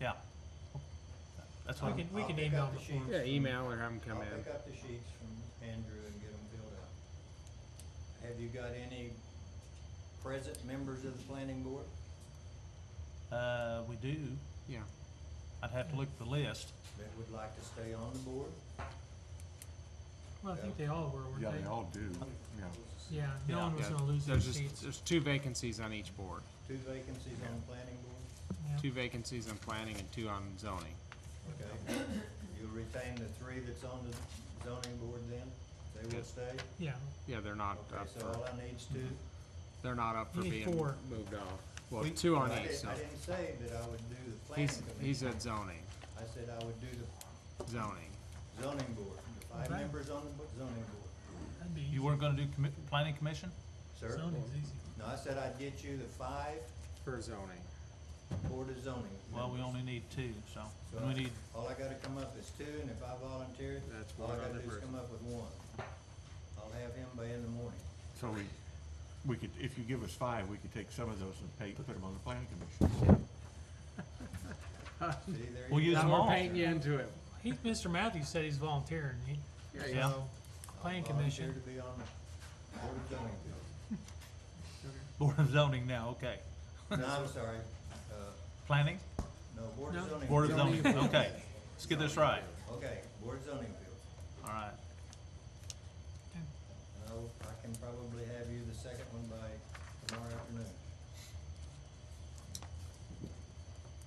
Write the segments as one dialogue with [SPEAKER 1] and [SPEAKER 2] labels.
[SPEAKER 1] Yeah. That's
[SPEAKER 2] We
[SPEAKER 1] what,
[SPEAKER 2] can, we
[SPEAKER 3] I'll
[SPEAKER 2] can
[SPEAKER 3] pick
[SPEAKER 2] email
[SPEAKER 3] up the
[SPEAKER 2] before.
[SPEAKER 3] sheets
[SPEAKER 4] Yeah,
[SPEAKER 3] from-
[SPEAKER 4] email or have them come
[SPEAKER 3] I'll
[SPEAKER 4] in.
[SPEAKER 3] pick up the sheets from Andrew and get them filled out. Have you got any present members of the planning board?
[SPEAKER 1] uh, we do,
[SPEAKER 4] Yeah.
[SPEAKER 1] I'd have to look at the list.
[SPEAKER 3] that would like to stay on the board?
[SPEAKER 2] Well, I think they all were,
[SPEAKER 5] Yeah,
[SPEAKER 2] weren't
[SPEAKER 5] they all do, yeah.
[SPEAKER 2] they? Yeah, no one was
[SPEAKER 4] Yeah.
[SPEAKER 2] gonna lose their
[SPEAKER 4] There's just,
[SPEAKER 2] seats.
[SPEAKER 4] there's two vacancies on each board,
[SPEAKER 3] Two vacancies on the planning board?
[SPEAKER 2] Yeah.
[SPEAKER 4] two vacancies on planning and two on zoning.
[SPEAKER 3] Okay. You'll retain the three that's on the zoning board then? They will
[SPEAKER 4] Yes.
[SPEAKER 3] stay?
[SPEAKER 2] Yeah,
[SPEAKER 4] Yeah, they're not
[SPEAKER 3] Okay,
[SPEAKER 4] up
[SPEAKER 3] so
[SPEAKER 4] for,
[SPEAKER 3] all I need's two?
[SPEAKER 4] they're not up for
[SPEAKER 2] You need
[SPEAKER 4] being
[SPEAKER 2] four.
[SPEAKER 4] moved off. Well, two
[SPEAKER 3] I
[SPEAKER 4] on each,
[SPEAKER 3] didn't,
[SPEAKER 4] so,
[SPEAKER 3] I didn't say that I would do the planning
[SPEAKER 4] he's, he's
[SPEAKER 3] commission.
[SPEAKER 4] at zoning,
[SPEAKER 3] I said I would do the
[SPEAKER 4] zoning.
[SPEAKER 3] zoning board, the five
[SPEAKER 2] Okay.
[SPEAKER 3] members on the bo- zoning board.
[SPEAKER 2] that'd be easy.
[SPEAKER 1] You weren't gonna do commi- planning commission?
[SPEAKER 3] Sir?
[SPEAKER 2] Zoning's easy.
[SPEAKER 3] No, I said I'd get you the five
[SPEAKER 4] For zoning.
[SPEAKER 3] board of zoning.
[SPEAKER 1] Well, we
[SPEAKER 3] members.
[SPEAKER 1] only need two, so,
[SPEAKER 3] So
[SPEAKER 1] and we need,
[SPEAKER 3] All I gotta come up is two, and if I volunteer,
[SPEAKER 4] That's
[SPEAKER 3] all I
[SPEAKER 4] one
[SPEAKER 3] gotta
[SPEAKER 4] other
[SPEAKER 3] do is
[SPEAKER 4] person.
[SPEAKER 3] come up with one. I'll have him by in the morning.
[SPEAKER 5] So we, we could, if you give us five, we could take some of those and pay, put them on the planning commission.
[SPEAKER 3] See, there you go.
[SPEAKER 1] We'll use
[SPEAKER 4] Now
[SPEAKER 1] them all.
[SPEAKER 4] we're painting you into it.
[SPEAKER 2] He, Mr. Matthews said he's volunteering, he,
[SPEAKER 1] Yeah.
[SPEAKER 2] so,
[SPEAKER 3] I'll
[SPEAKER 2] planning
[SPEAKER 3] volunteer
[SPEAKER 2] commission.
[SPEAKER 3] to be on the board of zoning.
[SPEAKER 1] board of zoning now, okay.
[SPEAKER 3] No, I'm sorry, uh,
[SPEAKER 1] Planning,
[SPEAKER 3] no, board
[SPEAKER 2] No.
[SPEAKER 3] of zoning.
[SPEAKER 1] board of
[SPEAKER 4] Zoning.
[SPEAKER 1] zoning, okay. Let's get this right,
[SPEAKER 3] Okay, board of zoning field.
[SPEAKER 1] all right.
[SPEAKER 3] And I'll, I can probably have you the second one by tomorrow afternoon.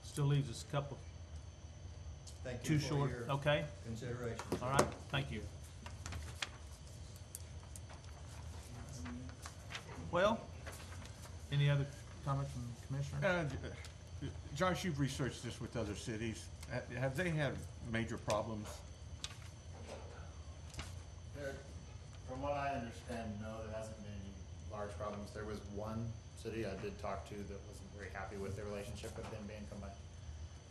[SPEAKER 1] Still leaves us a couple,
[SPEAKER 3] Thank
[SPEAKER 1] too
[SPEAKER 3] you for
[SPEAKER 1] short,
[SPEAKER 3] your
[SPEAKER 1] okay,
[SPEAKER 3] consideration.
[SPEAKER 1] all right, thank you. Well, any other comments from commissioners?
[SPEAKER 5] Uh, Josh, you've researched this with other cities. Ha- Have they had major problems?
[SPEAKER 6] There, from what I understand, no, there hasn't been any large problems. There was one city I did talk to that wasn't very happy with their relationship with them being combined.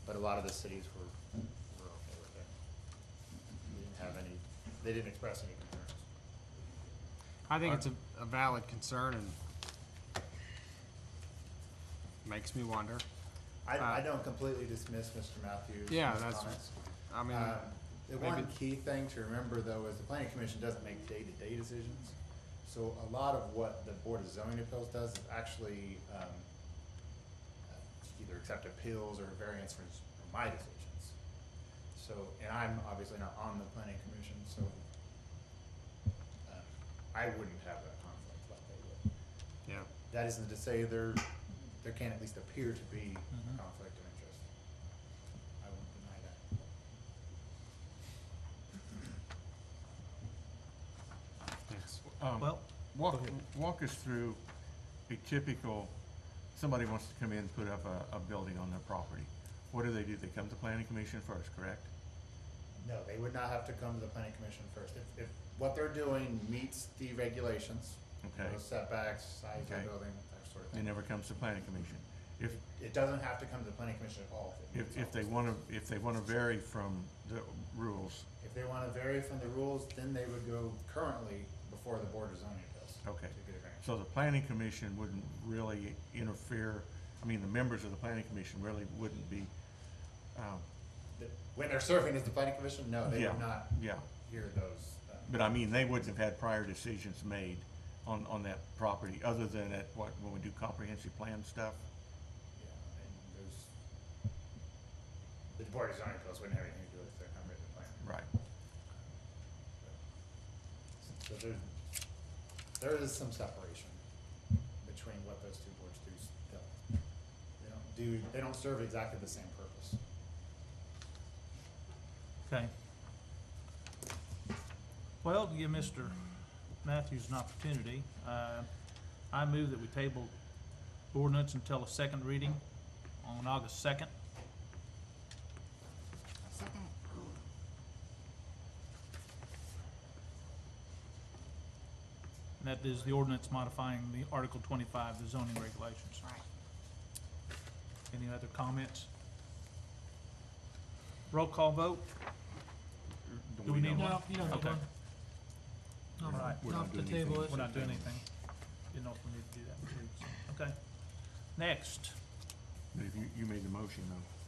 [SPEAKER 6] But a lot of the cities were, were okay with it. They didn't have any, they didn't express any concerns.
[SPEAKER 4] I think it's a, a valid concern and makes me wonder.
[SPEAKER 6] I, I
[SPEAKER 4] Uh,
[SPEAKER 6] don't completely dismiss Mr. Matthews'
[SPEAKER 4] Yeah,
[SPEAKER 6] his
[SPEAKER 4] that's-
[SPEAKER 6] comments.
[SPEAKER 4] I mean,
[SPEAKER 2] Uh,
[SPEAKER 6] Um, The one
[SPEAKER 4] maybe-
[SPEAKER 6] key thing to remember though is the planning commission doesn't make day-to-day decisions. So a lot of what the board of zoning appeals does is actually, um, uh, either accept appeals or variance from s- from my decisions. So, and I'm obviously not on the planning commission, so, uh, I wouldn't have that conflict like they would.
[SPEAKER 4] yeah,
[SPEAKER 6] That isn't to say there, there can at least appear to be
[SPEAKER 1] Mhm.
[SPEAKER 4] Mm-hmm.
[SPEAKER 6] a conflict of interest. I won't deny that.
[SPEAKER 4] thanks.
[SPEAKER 5] Um,
[SPEAKER 1] Well,
[SPEAKER 5] Walk,
[SPEAKER 1] Go ahead.
[SPEAKER 5] walk us through a typical, somebody wants to come in and put up a, a building on their property. What do they do? They come to planning commission first, correct?
[SPEAKER 6] No, they would not have to come to the planning commission first. If, if what they're doing meets the regulations,
[SPEAKER 5] Okay,
[SPEAKER 1] Uh-huh.
[SPEAKER 6] those setbacks, size of
[SPEAKER 5] Okay.
[SPEAKER 6] the building, that sort of
[SPEAKER 5] they
[SPEAKER 6] thing.
[SPEAKER 5] never comes to planning commission. If,
[SPEAKER 6] It doesn't have to come to the planning commission at all. it meets
[SPEAKER 5] if, if
[SPEAKER 6] all
[SPEAKER 5] they
[SPEAKER 6] those
[SPEAKER 5] wanna,
[SPEAKER 6] things.
[SPEAKER 5] if they wanna vary from the rules,
[SPEAKER 6] If they wanna vary from the rules, then they would go currently before the board of zoning appeals.
[SPEAKER 5] Okay.
[SPEAKER 6] To get a variance.
[SPEAKER 5] So the planning commission wouldn't really interfere, I mean, the members of the planning commission really wouldn't be, um,
[SPEAKER 6] The- When they're serving as the planning commission, no, Uh, they
[SPEAKER 5] yeah,
[SPEAKER 6] would not
[SPEAKER 5] yeah.
[SPEAKER 6] hear those. um,
[SPEAKER 5] But I mean, they wouldn't have had prior decisions made on, on that property, other than at what, when we do comprehensive plan stuff?
[SPEAKER 6] Yeah, and there's, the board of zoning appeals wouldn't have anything to do with their comprehensive plan.
[SPEAKER 5] Right.
[SPEAKER 6] So there, there is some separation between what those two boards do still. They don't do, they don't serve exactly the same purpose.
[SPEAKER 1] okay. Well, to give Mr. Matthews an opportunity, uh, I move that we table ordinance until a second reading on August second.
[SPEAKER 7] Second.
[SPEAKER 1] That is the ordinance modifying the Article twenty-five, the zoning regulations.
[SPEAKER 7] Right.
[SPEAKER 1] Any other comments? Roll call vote? Do we need one?
[SPEAKER 2] No, you don't need
[SPEAKER 1] Okay.
[SPEAKER 2] one.
[SPEAKER 1] All right.
[SPEAKER 2] Not,
[SPEAKER 5] We're not
[SPEAKER 2] not the
[SPEAKER 5] doing anything.
[SPEAKER 2] table, it.
[SPEAKER 1] We're not doing anything. Didn't know if we need to do that. Okay. Next,
[SPEAKER 5] But if you, you made the motion though.